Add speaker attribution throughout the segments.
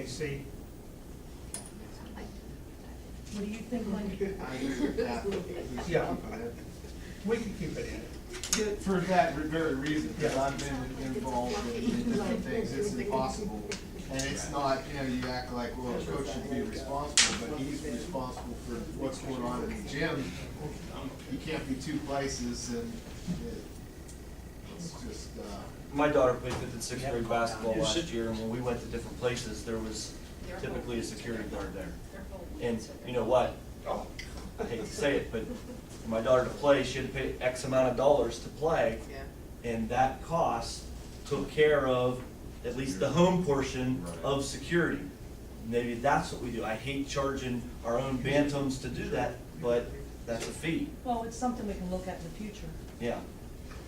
Speaker 1: EAC.
Speaker 2: What do you think, Mike?
Speaker 1: Yeah. We can keep it in.
Speaker 3: For that very reason, because I've been involved in different things, it's impossible. And it's not, you know, you act like, well, a coach should be responsible, but he's responsible for what's going on in the gym. You can't be two places and it- it's just, uh,
Speaker 4: My daughter played fifth and sixth grade basketball
Speaker 5: You should-
Speaker 4: last year, and when we went to different places, there was typically a security guard there. And you know what?
Speaker 1: Oh,
Speaker 4: I hate to say it, but for my daughter to play, she had to pay X amount of dollars to play. And that cost took care of at least the home portion of security. Maybe that's what we do. I hate charging our own bantams to do that, but that's a fee,
Speaker 2: Well, it's something we can look at in the future.
Speaker 4: yeah.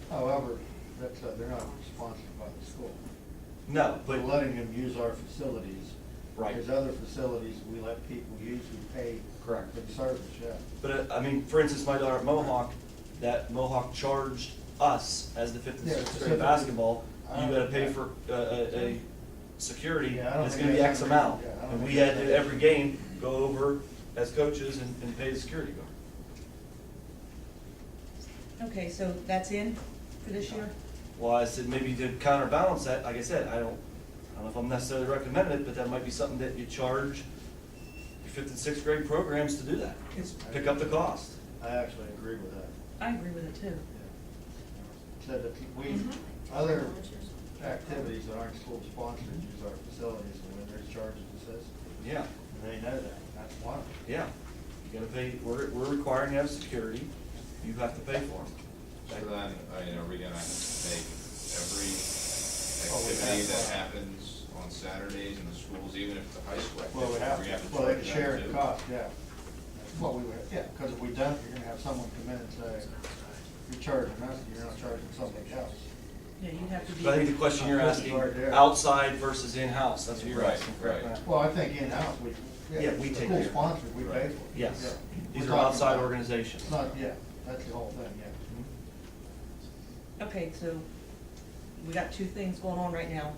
Speaker 6: However, that's, uh, they're not sponsored by the school.
Speaker 4: No,
Speaker 6: We're
Speaker 4: but,
Speaker 6: letting them use our facilities.
Speaker 4: Right.
Speaker 6: There's other facilities we let people use, we pay.
Speaker 4: Correct.
Speaker 6: For the service, yeah.
Speaker 4: but uh, I mean, for instance, my daughter at Mohawk, that Mohawk charged us as the fifth and
Speaker 6: Yeah,
Speaker 4: sixth
Speaker 6: so-
Speaker 4: grade basketball,
Speaker 6: I
Speaker 4: you
Speaker 6: don't
Speaker 4: gotta pay
Speaker 6: think that-
Speaker 4: for, uh, a, a security,
Speaker 6: Yeah, I don't
Speaker 4: it's
Speaker 6: think
Speaker 4: gonna be
Speaker 6: that's
Speaker 4: X amount.
Speaker 6: unreasonable. Yeah, I don't
Speaker 4: And we
Speaker 6: think
Speaker 4: had to,
Speaker 6: that's-
Speaker 4: every game, go over as coaches and, and pay the security guard.
Speaker 2: Okay, so that's in for this year?
Speaker 4: Well, I said, maybe to counterbalance that, like I said, I don't, I don't know if I'm necessarily recommending it, but that might be something that you charge your fifth and sixth grade programs to do that,
Speaker 1: it's,
Speaker 4: pick up the cost.
Speaker 6: I actually agree with that.
Speaker 2: I agree with it too.
Speaker 6: yeah. So that we, other activities that aren't school sponsored use our facilities and when there's charges assessed,
Speaker 4: Yeah,
Speaker 6: and they know that, that's one.
Speaker 4: yeah. You gotta pay, we're, we're requiring to have security, you have to pay for
Speaker 5: So
Speaker 4: them.
Speaker 5: then, I mean, are we gonna make every
Speaker 6: Oh, we
Speaker 5: activity
Speaker 6: have,
Speaker 5: that
Speaker 6: uh,
Speaker 5: happens on Saturdays in the schools, even if the high school
Speaker 6: Well, we have
Speaker 5: activity, we have
Speaker 6: to,
Speaker 5: to
Speaker 6: well,
Speaker 5: charge
Speaker 6: they
Speaker 5: them
Speaker 6: share
Speaker 5: too?
Speaker 6: the cost, yeah. That's what we would, yeah, because if we don't, you're gonna have someone come in and say, you're charging us, and you're not charging somebody else.
Speaker 2: Yeah, you have to be.
Speaker 4: But I think the question you're asking, outside versus in-house, that's what you're
Speaker 5: Right,
Speaker 4: asking, correct?
Speaker 5: right.
Speaker 6: Well, I think in-house, we.
Speaker 4: Yeah, we take care of
Speaker 6: School
Speaker 4: it.
Speaker 6: sponsored, we pay for it.
Speaker 4: Yes,
Speaker 6: Yeah.
Speaker 4: these
Speaker 6: We're
Speaker 4: are
Speaker 6: talking
Speaker 4: outside
Speaker 6: about-
Speaker 4: organizations.
Speaker 6: It's not, yeah, that's the whole thing, yeah.
Speaker 2: Okay, so we got two things going on right now,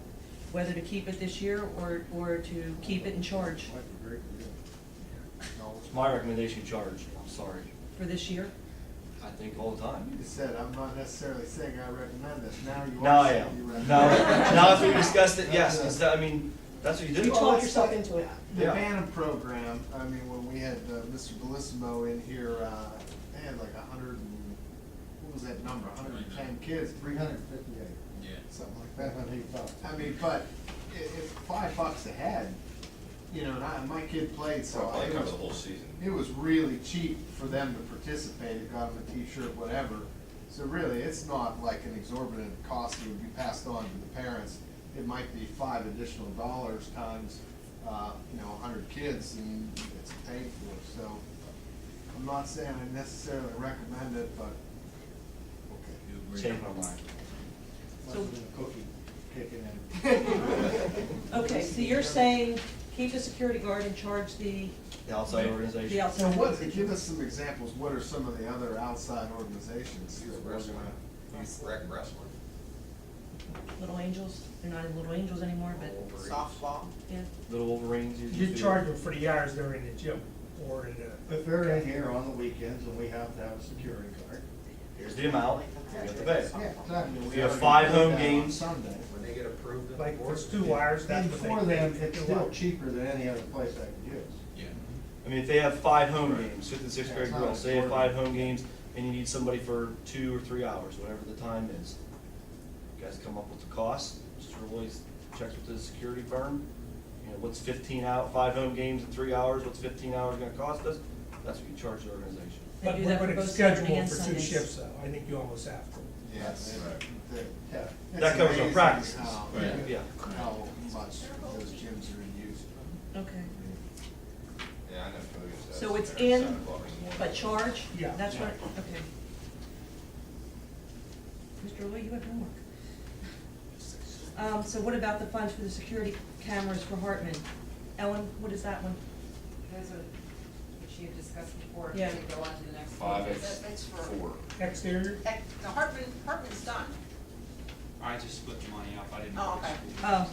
Speaker 2: whether to keep it this year or, or to keep it in charge
Speaker 6: Like the great deal. No,
Speaker 4: It's my recommendation, charge, I'm sorry,
Speaker 2: for this year.
Speaker 4: I think all the time.
Speaker 3: you said, I'm not necessarily saying I recommend this, now you are.
Speaker 4: Now I
Speaker 3: saying you
Speaker 4: am,
Speaker 3: recommend
Speaker 4: now,
Speaker 3: it.
Speaker 4: now if we discussed it, yes, instead, I mean, that's what you
Speaker 2: You
Speaker 4: do.
Speaker 2: talk yourself into it.
Speaker 3: The
Speaker 4: Yeah.
Speaker 3: Bantam program, I mean, when we had uh, Mr. Bellissimo in here, uh, they had like a hundred and, what was that number, a hundred and ten kids,
Speaker 6: Three hundred and fifty-eight,
Speaker 3: something like
Speaker 6: that's
Speaker 3: that.
Speaker 6: what he thought.
Speaker 3: I mean, but it, it's five bucks a head, you know, and I, my kid played, so I,
Speaker 5: Probably
Speaker 3: it
Speaker 5: covers
Speaker 3: was,
Speaker 5: the whole season.
Speaker 3: it was really cheap for them to participate, it got them a T-shirt, whatever. So really, it's not like an exorbitant cost that would be passed on to the parents. It might be five additional dollars times, uh, you know, a hundred kids and it's paid for, so. I'm not saying I necessarily recommend it, but,
Speaker 4: Change my mind.
Speaker 6: Must have been a cookie kicking in.
Speaker 2: Okay, so you're saying keep the security guard and charge the,
Speaker 4: The outside organization.
Speaker 2: the
Speaker 3: so
Speaker 2: outside.
Speaker 3: what, give us some examples, what are some of the other outside organizations? that we're
Speaker 5: Wrestling.
Speaker 3: gonna-
Speaker 5: Rec wrestling.
Speaker 2: Little Angels, they're not in Little Angels anymore, but,
Speaker 5: Softball.
Speaker 2: yeah.
Speaker 4: Little Wolverines. usually
Speaker 1: you
Speaker 4: do.
Speaker 1: charge them for the hours they're in the gym or in the,
Speaker 6: If they're in here on the weekends and we have to have a security guard.
Speaker 4: Here's the amount, you have to pay.
Speaker 6: Yeah, exactly.
Speaker 4: You have five home games.
Speaker 6: Sunday.
Speaker 7: When they get approved in the
Speaker 1: like,
Speaker 7: board.
Speaker 1: if it's two hours, that's
Speaker 6: And
Speaker 1: what they.
Speaker 6: for them,
Speaker 1: pay.
Speaker 6: it's still cheaper than any other place I could use.
Speaker 5: Yeah.
Speaker 4: I mean, if they have five home games, fifth and sixth grade
Speaker 6: That's not
Speaker 4: girls, they have
Speaker 6: important.
Speaker 4: five home games, and you need somebody for two or three hours, whatever the time is. You Guys come up with the cost, Mr. Roy's checks with the security firm, you know, what's fifteen out, five home games in three hours, what's fifteen hours gonna cost us? That's what you charge the organization.
Speaker 2: They
Speaker 1: But
Speaker 2: do
Speaker 1: we're
Speaker 2: that for
Speaker 1: gonna
Speaker 2: both
Speaker 1: schedule
Speaker 2: Saturday
Speaker 1: them
Speaker 2: and
Speaker 1: for two
Speaker 2: Sundays.
Speaker 1: shifts though, I think you almost have to.
Speaker 3: Yes.
Speaker 6: Yeah.
Speaker 4: That covers our practices.
Speaker 5: Right.
Speaker 4: Yeah.
Speaker 3: How much those gyms are in use.
Speaker 2: Okay.
Speaker 5: Yeah, I know Fogus does.
Speaker 2: So it's
Speaker 5: They're at
Speaker 2: in,
Speaker 5: seven o'clock in the morning.
Speaker 2: but charge?
Speaker 1: Yeah.
Speaker 2: That's what, okay. Mr. Lee, you have homework. Um, so what about the funds for the security cameras for Hartman? Ellen, what is that one?
Speaker 8: Those are, which you discussed before,
Speaker 2: Yeah.
Speaker 8: if you go on to the next. one.
Speaker 5: Five,
Speaker 8: That-
Speaker 5: it's
Speaker 8: That's for,
Speaker 5: four.
Speaker 1: Exterior,
Speaker 8: heck, the Hartman, Hartman's done.
Speaker 9: I just split the money up, I didn't.
Speaker 8: Oh, okay.
Speaker 2: Oh,